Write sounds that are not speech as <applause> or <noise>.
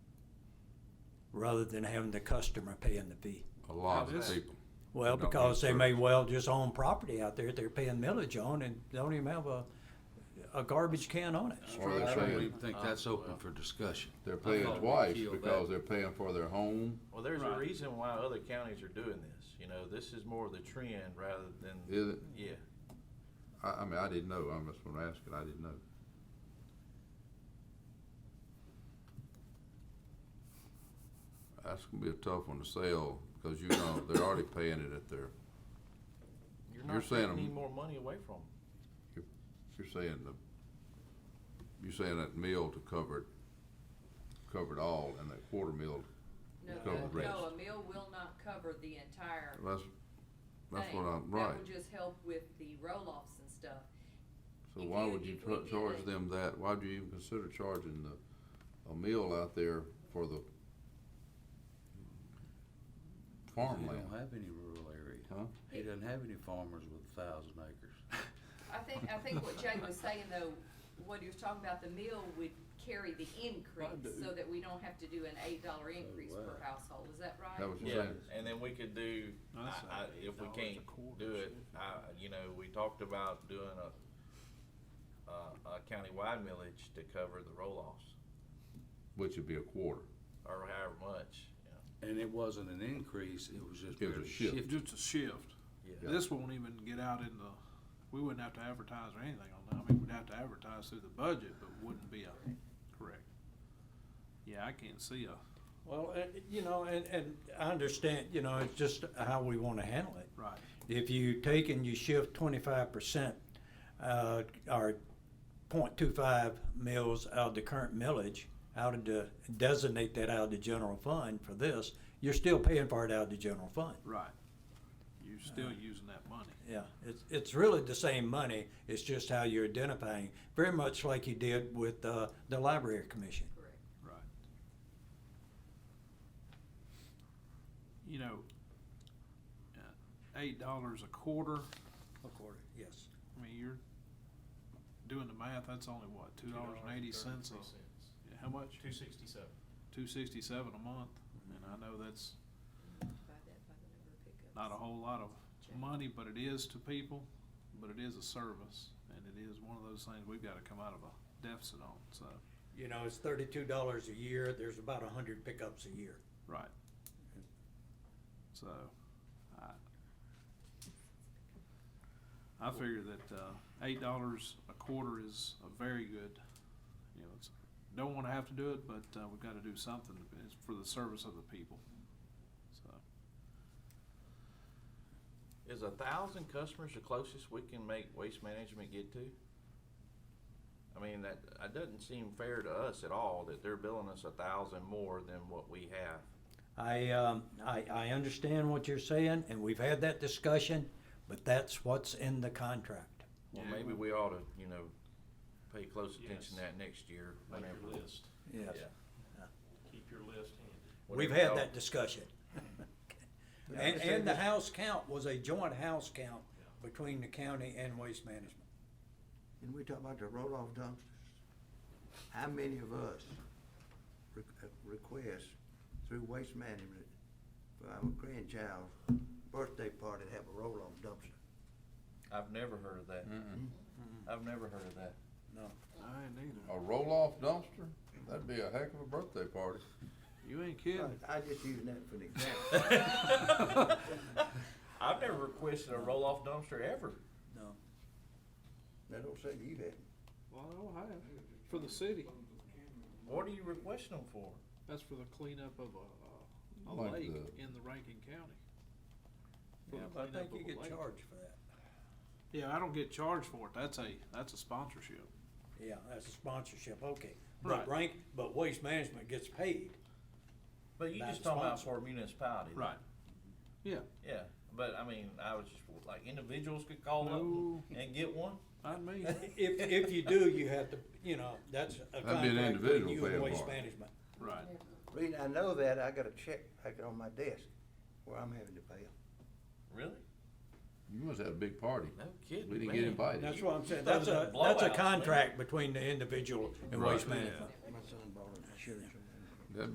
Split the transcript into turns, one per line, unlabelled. rather than having the customer paying the fee.
a lot of
How's that?
people.
Well,
No,
because they may
sure.
well just own property out there they're paying millage on and don't even have a, a garbage can on it.
Well,
That's
I don't
right.
even think
Uh,
that's open
well.
for discussion.
They're
I
paying
thought we
twice
killed
because
that.
they're paying for their home.
Well, there's
Right.
a reason why other counties are doing this. You know, this is more of the trend rather than
Is it?
yeah.
I, I mean, I didn't know. I'm just gonna ask it. I didn't know. That's gonna be a tough one to sell because you know they're already paying it at their.
You're
You're
not
saying
taking any
them-
more money away from them.
You're saying the. You're saying that meal to cover it. Cover it all, and that quarter meal.
No,
Cover the rest.
no, no, a meal will not cover the entire thing.
That's. That's what I'm right.
That will just help with the roll-offs and stuff.
So
If
why
you-
would you
if we
tra-
did
charge
it-
them that? Why'd you even consider charging the, a meal out there for the
He
farmland?
don't have any rural area.
Huh?
He doesn't have any farmers with a thousand acres.
I think, I think what Jay was saying though, what he was talking about, the meal would carry the increase so that we don't have to do an eight dollar increase per
wow.
household, is that right?
That was
Yeah,
your thing.
and then we could do, I,
That's
I,
like
if we
$8 a
can't
quarter,
do it,
shit.
I, you know, we talked about doing a, a, a countywide millage to cover the roll-offs
Which would be a quarter.
or however much, you know.
And it wasn't an increase, it was just
It was a
barely
shift.
shifted.
Just a shift.
Yeah.
This won't even get out in the, we wouldn't have to advertise or anything on that. I mean, we'd have to advertise through the budget, but wouldn't be a, correct. Yeah, I can't see a,
Well, uh, you know, and, and I understand, you know, it's just how we wanna handle it.
right.
If you take and you shift twenty-five percent, uh, or point two-five mills out of the current millage, out of the, designate that out of the general fund for this, you're still paying for it out of the general fund.
Right. You're still using that money.
Yeah, it's, it's really the same money, it's just how you're identifying, very much like you did with, uh, the library commission.
Correct.
Right. You know, uh, eight dollars a quarter,
According. Yes.
I mean, you're doing the math, that's only what, two dollars and eighty cents a, yeah, how much?
Two sixty-seven.
Two sixty-seven a month, and I know that's
Divide that by the number of pickups.
not a whole lot of
Check.
money, but it is to people, but it is a service, and it is one of those things we've gotta come out of a deficit on, so,
You know, it's thirty-two dollars a year, there's about a hundred pickups a year.
right. So, I, I figure that, uh, eight dollars a quarter is a very good, you know, it's, don't wanna have to do it, but, uh, we've gotta do something, it's for the service of the people, so.
Is a thousand customers the closest we can make waste management get to? I mean, that, that doesn't seem fair to us at all that they're billing us a thousand more than what we have.
I, um, I, I understand what you're saying, and we've had that discussion, but that's what's in the contract.
Well,
Yeah.
maybe we ought to, you know, pay close attention
Yes.
to that next year,
Make
whenever.
your list,
Yes.
Yeah.
keep your list handy.
We've
Whenever
had
y'all-
that <laughs> discussion.
Yeah, I
And, and
understand
the
this.
house count was a joint house count between the county and waste management.
And we talk about the roll-off dumpsters. How many of us re- uh, request through waste management for our grandchild's birthday party to have a roll-off dumpster?
I've never heard of that. I've never heard of that.
I ain't either.
A roll-off dumpster? That'd be a heck of a birthday party.
You ain't kidding.
I I just using that for an example.
I've never requested a roll-off dumpster ever.
Now, don't say you had.
Well, I don't have. For the city,
What are you requesting them for?
that's for the cleanup of a, a
Like
lake
the-
in the Rankin County. For
Yeah,
the
but I think
cleanup
you
of a
get
lake.
charged for that.
Yeah, I don't get charged for it. That's a, that's a sponsorship.
Yeah, that's a sponsorship, okay.
Right.
But rank, but waste management gets <laughs> paid.
But you
Not
just talking about
sponsored.
for a municipality.
Right. Yeah,
Yeah, but I mean, I was just like individuals could call
No.
up and get one.
not me.
If, if you do, you have to, you know, that's a
an
contract between
individual
you and
paying
waste
part.
management.
Right.
Reason I know that, I got a check back on my desk where I'm having to pay 'em.
Really?
You must have a big party.
No kidding.
We didn't
man.
get invited.
That's what I'm saying,
Those
that's
are
a, that's a
blowouts, man.
contract between the individual and
Right.
waste management.
My son bought it.
Sure.